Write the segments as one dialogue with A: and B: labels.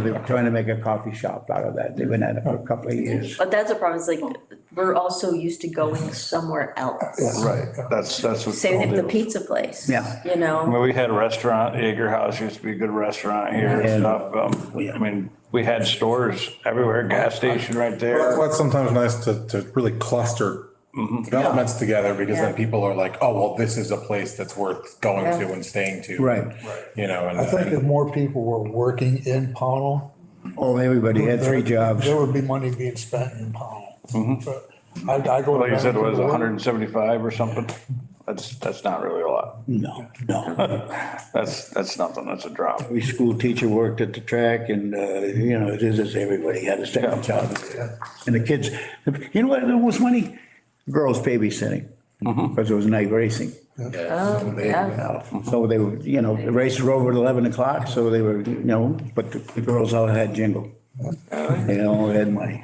A: They were trying to make a coffee shop out of that. They've been at it for a couple of years.
B: But that's the problem, is like, we're also used to going somewhere else.
C: Right, that's, that's what.
B: Same with the pizza place.
A: Oh, Yeah.
B: You know,
C: Well, we had a restaurant, Yeager House used to be a good restaurant here and stuff. Um, I mean, we had stores everywhere, gas station right
D: That's
C: there.
D: why it's sometimes nice to, to really cluster developments together because then
B: Yeah.
D: people are like, oh, well, this is a place that's worth going to and staying to.
A: Right.
D: You know, and.
E: I think if more people were working in Pownell.
A: Oh, everybody had three
E: there-
A: jobs.
E: There would be money being spent in Pownell. But I, I go.
C: Like Mm-hmm. you said, it was hundred and seventy-five or something. That's, that's not really a lot.
A: No, no.
C: That's, that's nothing. That's a drop.
A: Every school teacher worked at the track and, uh, you know, it is, it's everybody had a second job. And the kids, you know what, it was funny? Girls babysitting
C: Mm-hmm.
A: because it was night racing.
B: oh, yeah,
C: Mm-hmm.
A: So they were, you know, the race were over at 11 o'clock, so they were, you know, but the girls all had jingle. They all had money.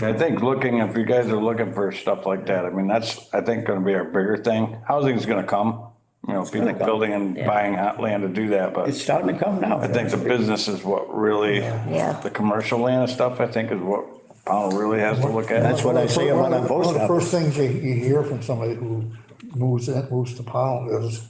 C: I think looking, if you guys are looking for stuff like that, I mean, that's, I think, gonna be our bigger thing. Housing's gonna come. You know, people
A: gonna come.
C: building and buying hot land to do that, but.
A: It's starting to come now.
C: I think the business is what really,
B: Yeah.
C: the commercial land and stuff, I think is what Powell really has to look at.
A: That's what I say about our post
E: One of the
A: office.
E: first things you, you hear from somebody who moves in, moves to Pownell is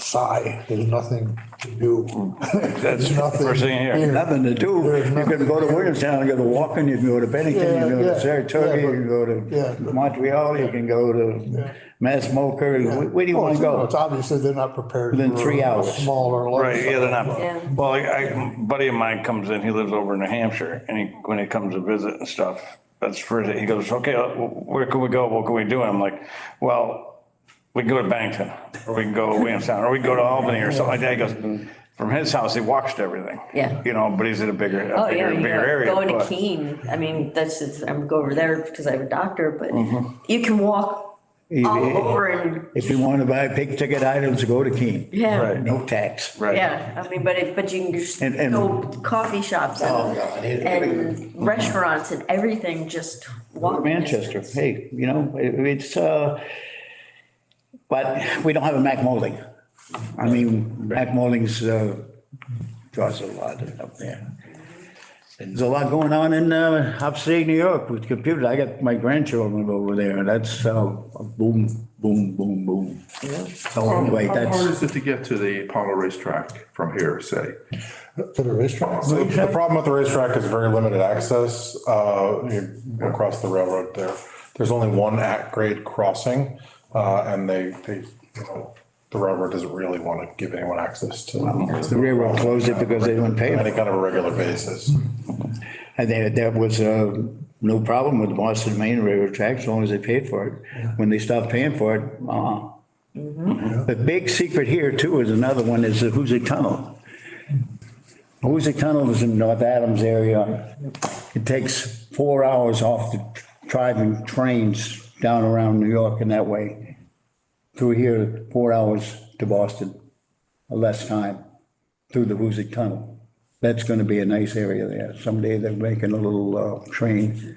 E: sigh, there's nothing to do.
C: That's
E: There's nothing
C: first thing here.
A: Nothing to do. You
E: There's nothing
A: can go to
E: here.
A: Williamstown, you can go to Walken, you can go to Bennington, you can go
E: Yeah,
A: to
E: yeah,
A: Saratoga,
E: yeah,
A: you can go
E: yeah,
A: to
E: but-
A: Montreal, you can go to Massmoker. Where- Where do you
E: Well,
A: want to
E: Oh, it's- no,
A: go?
E: It's obviously they're not prepared.
A: Within
E: for
A: three
E: a
A: hours.
E: Smaller. lot.
C: Right, yeah, they're
B: Yeah.
C: not, well, I, I- buddy of mine comes in, he lives over in New Hampshire, and he, when he comes to visit and stuff, that's first, he goes, okay, uh, where can we go, what can we do? And I'm like, well, we can go to Bennington, or we can go to Williamstown, or we can go to Albany, or something like that, he goes, from his house, he walks to everything.
B: Yeah.
C: You know, but he's in a bigger, a
B: oh, yeah,
C: bigger,
B: you
C: bigger
B: know,
C: area.
B: going to
C: but-
B: Keene, I mean, that's just, I'm go over there because I have a doctor, but
A: Mm-hmm.
B: you can walk all over and,
A: If you want to buy big ticket items, go to Keene.
B: yeah,
C: Right.
A: No tax.
C: Right.
B: yeah, I mean, but it, but you can just
A: And- and-
B: go coffee shops
A: Oh,
B: and,
A: God. it-
B: and restaurants and everything, just
A: Or
B: walk.
A: Manchester, hey, you know, it- it's, uh, but we don't have a Mac Molding. I mean, Mac Molding's, uh, draws a lot up there. There's a lot going on in, uh, upstate New York with computers. I got my grandchildren over there, that's, uh, boom, boom, boom, boom. So anyway,
F: How hard
A: that's,
F: is it to get to the Pownell racetrack from here, say?
E: To the restaurant.
D: So The problem with the racetrack is very limited access, uh, you go across the railroad there. There's only one at grade crossing, uh, and they, they, you know, the railroad doesn't really want to give anyone access to.
A: the railroad closed it because they didn't pay
D: Any
A: them.
D: kind of a regular basis.
A: And there, there was, uh, no problem with the Boston Main Railroad tracks, as long as they paid for it. When they stopped paying for it, uh-uh. The big secret here too is another one is the Hoosic Tunnel. Hoosic Tunnel is in North Adams area. It takes four hours off the driving trains down around New York and that way. Through here, four hours to Boston, less time through the Hoosic Tunnel. That's going to be a nice area there. Someday they're making a little uh, train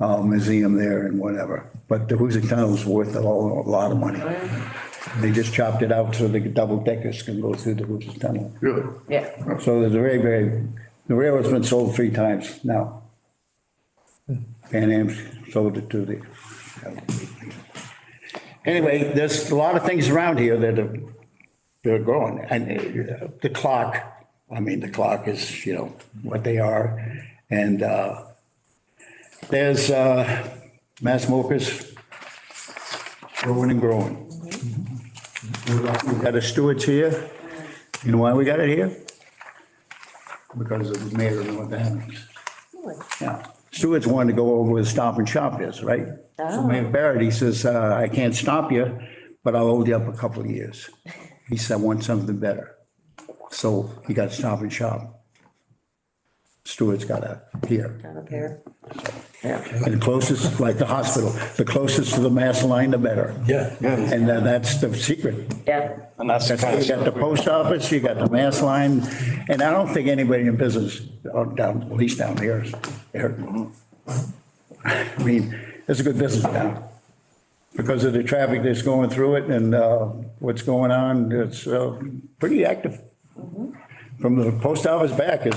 A: uh, museum there and whatever. But the Hoosic Tunnel's worth a lo- a lot of money. They just chopped it out so the double deckers can go through the Hoosic Tunnel.
F: Really?
B: Yeah,
A: So there's a very, very, the railroad's been sold three times now. Pan Am's sold it to the. Anyway, there's a lot of things around here that are, that are growing. And uh, the clock, I mean, the clock is, you know, what they are. And uh, there's uh, mass smokers growing and growing. We've got a Stewart's here. You know why we got it here? because it was made in North Adams. Yeah. Stewart's wanted to go over where the Stop and Shop is, right? So Mayor Barrett, he says, uh, I can't stop you, but I'll hold you up a couple of years. He said, I want something better. So he got Stop and Shop. Stewart's got a pier.
B: down up here.
A: And the closest, like the hospital, the closest to the mass line, the better.
E: Yeah.
A: And uh, that's the secret.
B: Yeah,
C: And that's the kind of
A: You got the
C: stuff. we-
A: post office, you got the mass line, and I don't think anybody in business, or down, at least down here, is there. I mean, it's a good business town. Because of the traffic that's going through it and uh, what's going on, it's uh, pretty active. from the post office back is